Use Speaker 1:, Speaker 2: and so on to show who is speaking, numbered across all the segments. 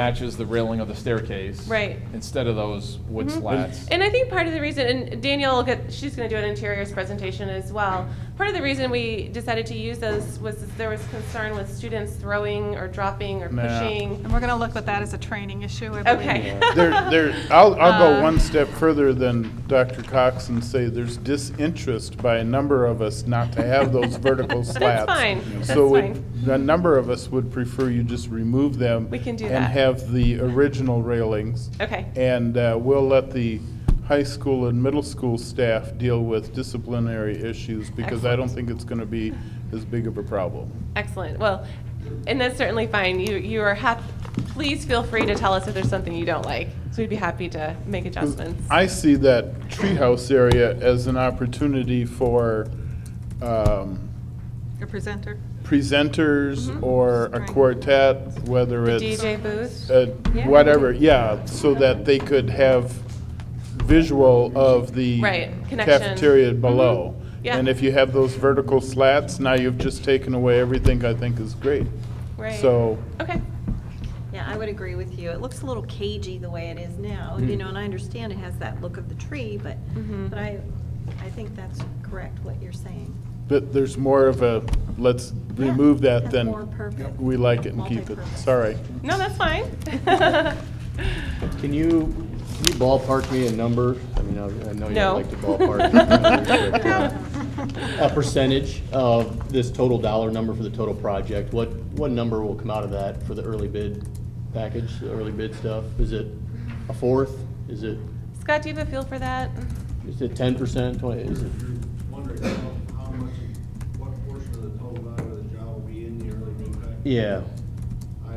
Speaker 1: matches the railing of the staircase.
Speaker 2: Right.
Speaker 1: Instead of those wood
Speaker 2: Mhm.
Speaker 1: slats.
Speaker 2: And I think part of the reason, and Danielle, will get- she's going to do an interiors presentation as well. Part of the reason we decided to use those was that there was concern with students throwing or dropping or
Speaker 1: Nah.
Speaker 2: pushing.
Speaker 3: And we're going to look at that as a training issue, I believe.
Speaker 2: Okay.
Speaker 4: There, there, I'll, I'll go
Speaker 2: Um,
Speaker 4: one step further than Dr. Cox and say there's disinterest by a number of us not to have those vertical
Speaker 2: That's
Speaker 4: slats.
Speaker 2: fine.
Speaker 4: So
Speaker 2: That's
Speaker 4: it-
Speaker 2: fine.
Speaker 4: a number of us would prefer you just remove them.
Speaker 2: We can do
Speaker 4: And
Speaker 2: that.
Speaker 4: have the original railings.
Speaker 2: Okay.
Speaker 4: And uh, we'll let the high school and middle school staff deal with disciplinary issues because I don't think it's going to be as big of a problem.
Speaker 2: Excellent. Well, and that's certainly fine. You, you are hap, please feel free to tell us if there's something you don't like. So we'd be happy to make adjustments.
Speaker 4: I see that treehouse area as an opportunity for um,
Speaker 3: Your presenter.
Speaker 2: Mm-hmm.
Speaker 4: presenters or a quartet, whether it's,
Speaker 2: DJ booth?
Speaker 4: uh,
Speaker 2: Yeah.
Speaker 4: whatever, yeah, so that they could have visual of the
Speaker 2: Right, connection.
Speaker 4: cafeteria
Speaker 2: Mhm.
Speaker 4: below.
Speaker 2: Yeah.
Speaker 4: And if you have those vertical slats, now you've just taken away everything I think is great.
Speaker 2: Right.
Speaker 4: So,
Speaker 2: Okay.
Speaker 5: Yeah, I would agree with you. It looks a little cagey the way it is now, you know, and I understand it has that look of the tree, but,
Speaker 2: Mhm.
Speaker 5: but I, I think that's correct what you're saying.
Speaker 4: but there's more of a, let's
Speaker 5: Yeah,
Speaker 4: remove that
Speaker 5: that's more
Speaker 4: than
Speaker 5: perfect.
Speaker 4: we like it and keep it.
Speaker 5: Multipurpose.
Speaker 4: Sorry.
Speaker 2: No, that's fine.
Speaker 6: Can you, can you ballpark me a number? I mean, I I know you
Speaker 2: No.
Speaker 6: don't like to ballpark. numbers, but, uh, A percentage of this total dollar number for the total project, what, what number will come out of that for the early bid package, the early bid stuff? Is it a fourth? Is it,
Speaker 2: Scott, do you have a feel for that?
Speaker 6: is it ten percent, twenty, is it?
Speaker 7: You're wondering how, how much, what portion of the total value of the job will be in the early bid package?
Speaker 6: Yeah,
Speaker 7: I,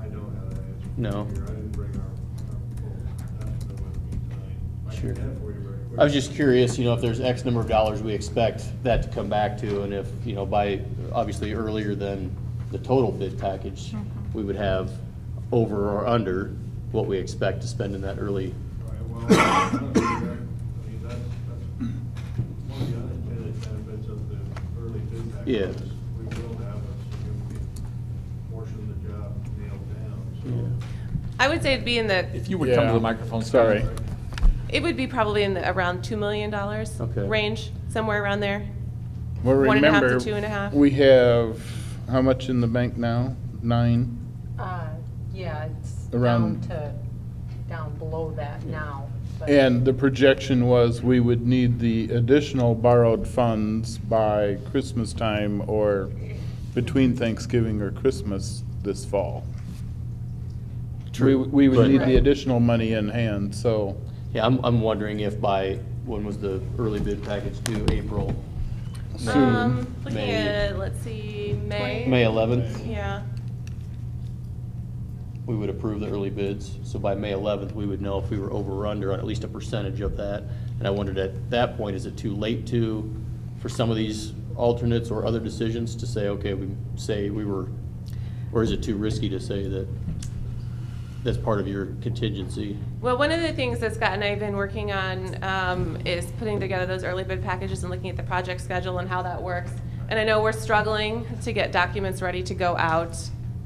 Speaker 7: I don't have that answer.
Speaker 6: No.
Speaker 7: here. I didn't bring our, our full estimate with me tonight. I can
Speaker 6: Sure.
Speaker 7: get it for you very
Speaker 6: I was just
Speaker 7: quickly.
Speaker 6: curious, you know, if there's X number of dollars we expect that to come back to, and if, you know, by, obviously earlier than the total bid package, we would have over or under what we expect to spend in that early.
Speaker 7: All right, well, I don't know, I mean, that's, that's one of the unintended benefits of the early bid package.
Speaker 6: Yeah.
Speaker 7: is We will have a significant portion of the job nailed down, so.
Speaker 2: I would say it'd be in the,
Speaker 1: If you would come to
Speaker 4: Yeah.
Speaker 1: the microphone. Scott.
Speaker 4: Sorry.
Speaker 2: it would be probably in the around $2 million
Speaker 6: Okay.
Speaker 2: range, somewhere around there.
Speaker 4: Well,
Speaker 2: One and a half to
Speaker 4: remember,
Speaker 2: two and a half.
Speaker 4: we have, how much in the bank now? Nine?
Speaker 8: Uh, Yeah, it's down
Speaker 4: Around-
Speaker 8: to, down below that now. but-
Speaker 4: And the projection was we would need the additional borrowed funds by Christmas time or between Thanksgiving or Christmas this fall. We,
Speaker 6: True,
Speaker 4: we would
Speaker 6: but-
Speaker 4: need the additional money in hand, so,
Speaker 6: Yeah, I'm, I'm wondering if by, when was the early bid package due, April? May-
Speaker 2: Um, Looking
Speaker 6: May-
Speaker 2: at, let's see, May?
Speaker 6: May eleventh,
Speaker 2: Yeah.
Speaker 6: we would approve the early bids, so by May eleventh, we would know if we were over or under on at least a percentage of that. And I wondered at that point, is it too late to, for some of these alternates or other decisions to say, okay, we say we were, or is it too risky to say that that's part of your contingency?
Speaker 2: Well, one of the things that Scott and I have been working on um, is putting together those early bid packages and looking at the project schedule and how that works. And I know we're struggling to get documents ready to go out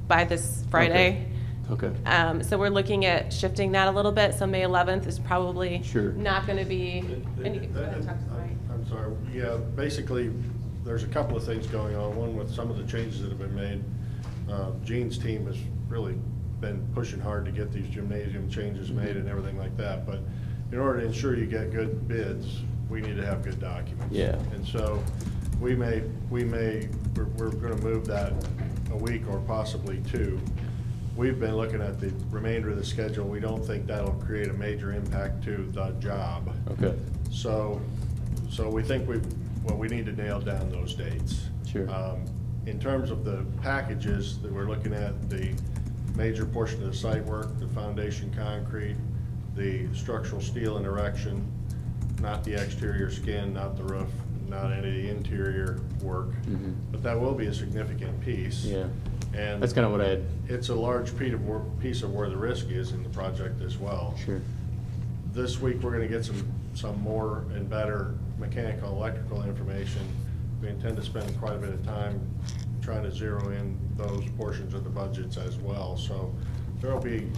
Speaker 2: by this Friday.
Speaker 6: Okay.
Speaker 2: Um, So we're looking at shifting that a little bit, so May 11th is probably
Speaker 6: Sure.
Speaker 2: not going to be. and you can go ahead and talk to Mike.
Speaker 7: I'm I'm sorry, yeah, basically, there's a couple of things going on, one with some of the changes that have been made. Uh, Gene's team has really been pushing hard to get these gymnasium changes made and everything like that, but in order to ensure you get good bids, we need to have good documents.
Speaker 6: Yeah.
Speaker 7: And so, we may, we may, we're, we're gonna move that a week or possibly two. We've been looking at the remainder of the schedule, we don't think that'll create a major impact to the job.
Speaker 6: Okay,
Speaker 7: So, so we think we, well, we need to nail down those dates.
Speaker 6: Sure.
Speaker 7: Um, In terms of the packages that we're looking at, the major portion of the site work, the foundation concrete, the structural steel and erection, not the exterior skin, not the roof, not any of the interior work.
Speaker 6: Mhm.
Speaker 7: But that will be a significant piece.
Speaker 6: yeah.
Speaker 7: And
Speaker 6: That's kind of what I had,
Speaker 7: it's a large piece of where, piece of where the risk is in the project as well
Speaker 6: sure.
Speaker 7: this week, we're gonna get some, some more and better mechanical, electrical information. We intend to spend quite a bit of time trying to zero in those portions of the budgets as well, so there'll be